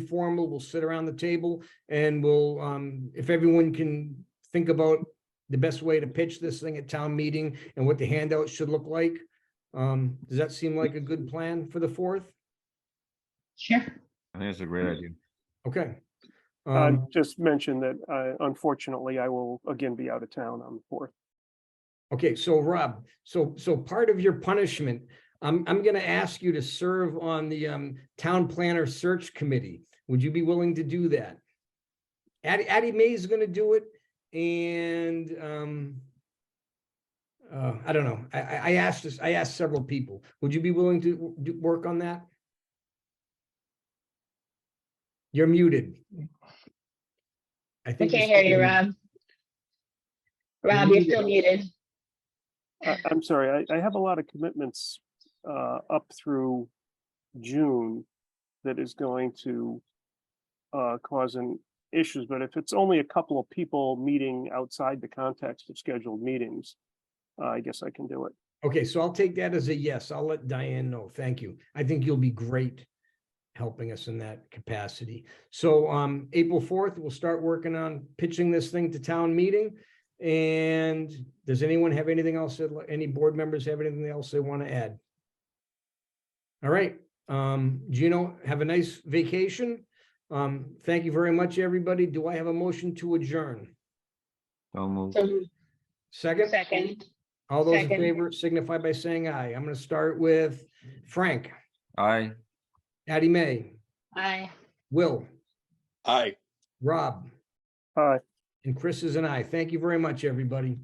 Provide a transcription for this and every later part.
informal. We'll sit around the table and we'll, um, if everyone can think about the best way to pitch this thing at town meeting and what the handout should look like. Um, does that seem like a good plan for the fourth? Sure. I think that's a great idea. Okay. Uh, Um, just mention that, uh, unfortunately, I will again be out of town on the fourth. Okay, so Rob, so, so part of your punishment, I'm, I'm gonna ask you to serve on the, um, Town Planner Search Committee. Would you be willing to do that? Addie, Addie May is gonna do it and, um, uh, I don't know. I, I, I asked this, I asked several people. Would you be willing to w- do, work on that? You're muted. I We think can't hear you, still- Rob. Rob, you're still muted. I, I'm sorry, I, I have a lot of commitments, uh, up through June that is going to, uh, cause an issues, but if it's only a couple of people meeting outside the context of scheduled meetings, uh, I guess I can do it. Okay, so I'll take that as a yes. I'll let Diane know. Thank you. I think you'll be great helping us in that capacity. So um, April fourth, we'll start working on pitching this thing to town meeting. And does anyone have anything else? that Any board members have anything else they want to add? All right, um, Gino, have a nice vacation. Um, thank you very much, everybody. Do I have a motion to adjourn? So moved. So, Second? Second, All those in Second. favor signify by saying aye. I'm going to start with Frank, Aye. Addie May, aye. Will, Aye. Rob, Hi. and Chris is an aye. Thank you very much, everybody.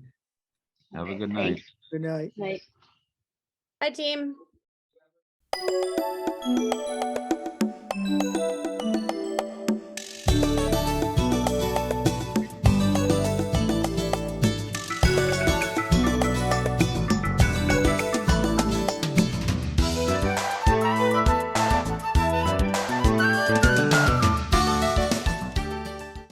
Have a Okay, good night. thanks. Night. Hi, team.